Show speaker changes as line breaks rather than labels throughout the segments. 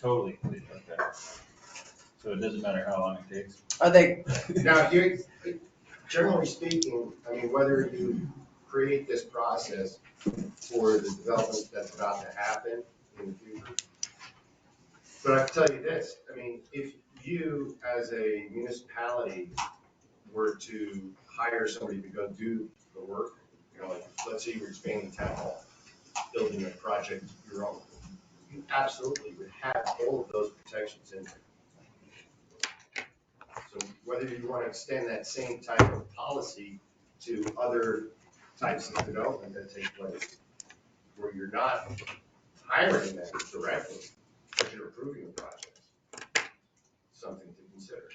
totally complete, okay. So it doesn't matter how long it takes.
Are they,
Now, you, generally speaking, I mean, whether you create this process for the development that's about to happen in the future. But I can tell you this, I mean, if you as a municipality were to hire somebody to go do the work, you know, like, let's say you're expanding town hall, building a project of your own, you absolutely would have all of those protections in there. So whether you want to extend that same type of policy to other types of development that take place, where you're not hiring them directly, but you're approving the project, something to consider.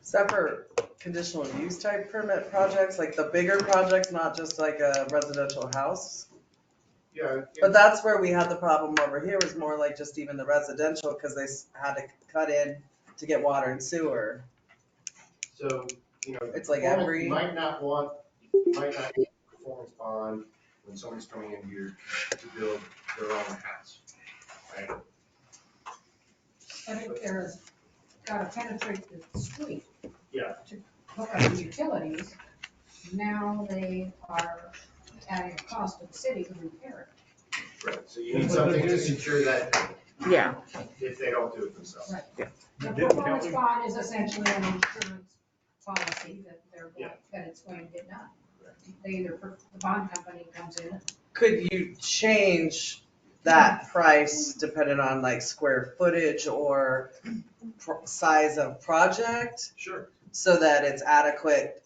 except for conditional use type permit projects, like the bigger projects, not just like a residential house?
Yeah.
But that's where we had the problem over here was more like just even the residential, cause they s- had to cut in to get water and sewer.
So, you know.
It's like
performance-
every-
You might not want, you might not need a performance bond when someone's coming in here to build their own house, right?
Medicare gotta penetrate the street.
Yeah.
To hook up the utilities, now they are adding a cost to the city to repair
Right, so you need something to secure that
Yeah,
if they don't do it themselves.
it. The
Yeah,
performance
Kelly.
bond is essentially an insurance policy that they're, going-
Yeah.
that it's going to get done.
Right.
They either, per- the bond company comes in,
Could you change that price depending on like square footage or pro- size of project?
Sure.
so that it's adequate.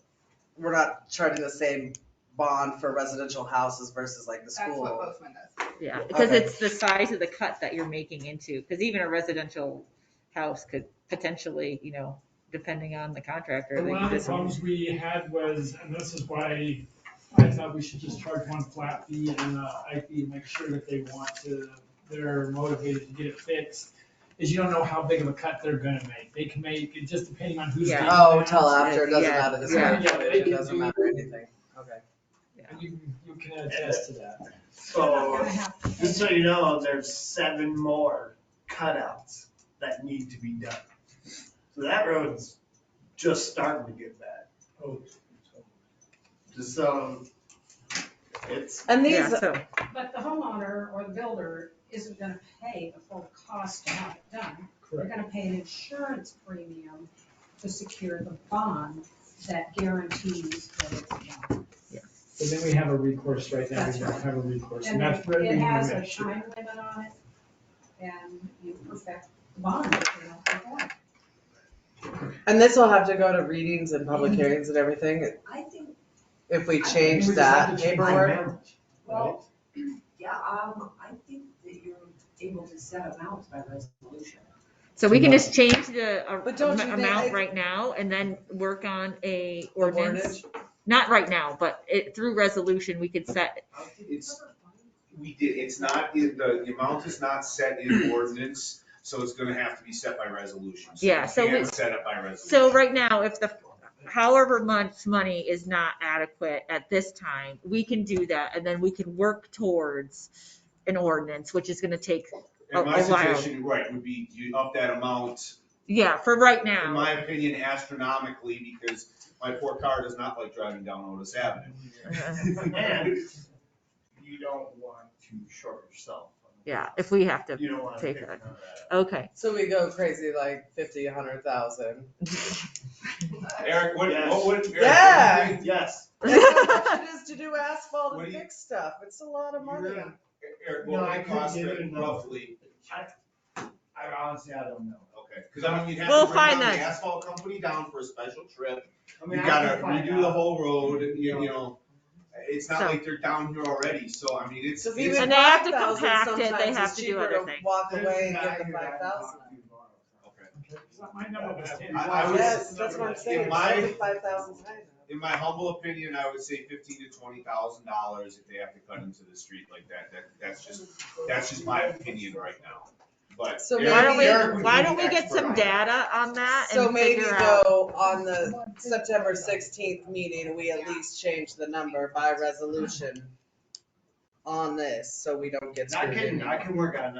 We're not charging the same bond for residential houses versus like the
That's what
school.
Bozeman does.
yeah, because
Okay.
it's the size of the cut that you're making into, because even a residential house could potentially, you know, depending on the contractor. they
One of
could
the
just-
problems we had was, and this is why I thought we should just charge one flat fee and an IP, make sure that they want to, they're motivated to get it fixed, is you don't know how big of a cut they're gonna make. They can make, it just depending on who's.
Yeah.
getting
Oh,
that.
till after, it doesn't
Yeah,
matter, this
yeah.
one, it
Yeah.
doesn't matter anything, okay.
And You, you can attest to that.
they're
Oh.
So,
gonna have. to-
just so you know, there's seven more cutouts that need to be done. So that road's just starting to get bad.
Oh,
Just so, it's,
And
Yeah,
these,
so,
But the homeowner or the builder isn't gonna pay the full cost to have it done. They're
Correct.
gonna pay an insurance premium to secure the bond that guarantees that it's done.
But then we have a recourse right now.
That's
We don't
right.
have a recourse. And
And
that's where we
it has a
make sure.
time limit on it, and you perfect the bond if you don't perform.
and this will have to go to readings and public hearings and everything,
I think,
if we
I-
change
We just have
that
to change
paperwork.
that.
well, yeah, um, I think that you're able to set amounts by resolution.
so we can just change the uh,
But don't you think
amount
it's-
right now and then work on a
or
ordinance. Not right now, but it, through resolution, we could set,
It's, we did, it's not, in the, the amount is not set in ordinance, so it's gonna have to be set by resolution.
Yeah, so
You
we-
can't set it by resolution.
so right now, if the, however much money is not adequate at this time, we can do that and then we can work towards an ordinance, which is gonna take,
And my
a while.
suggestion, right, would be you up that amount,
yeah, for right now.
in my opinion astronomically, because my poor car does not like driving down Otis Avenue.
and you don't want to short yourself.
Yeah, if we have to,
You don't want to
take
pick
it.
another.
okay.
So we go crazy like fifty, a hundred thousand.
Eric, what,
Yes.
what would, Eric?
Yeah.
Yes.
It is to do asphalt
What
and
do you-
fix stuff, it's a lot of money.
You're gonna-
Eric,
No,
what would
I
it
couldn't
cost
give
to
it a number.
roughly?
I honestly, I don't know.
Okay, because I mean, you'd have
We'll
to bring
find
down the
that.
asphalt company down for a special trip.
I
You
mean, I
gotta
can find
redo the
out.
whole road, you, you know, it's not
So-
like they're down here already, so I mean, it's.
Cause
it's-
even
And they have to
5,000
compact it, they
sometimes
have
is
to do
cheaper
other things.
Walk away and
There's a
give
guy
the
who I
five thousand.
talked to tomorrow.
Okay.
My number was ten.
I- I was-
Yes, that's what I'm saying,
In my-
seventy-five thousand times.
In my humble opinion, I would say fifteen to twenty thousand dollars if they have to cut into the street like that, that, that's just, that's just my opinion right now. But.
So
Eric-
Why don't
Eric
we,
would be
why don't we
the
get
expert
some
on that.
data on that
So
and
maybe
figure out?
though, on the September sixteenth meeting, we at least change the number by resolution on this, so we don't get
I
screwed
can,
anymore.
I can work on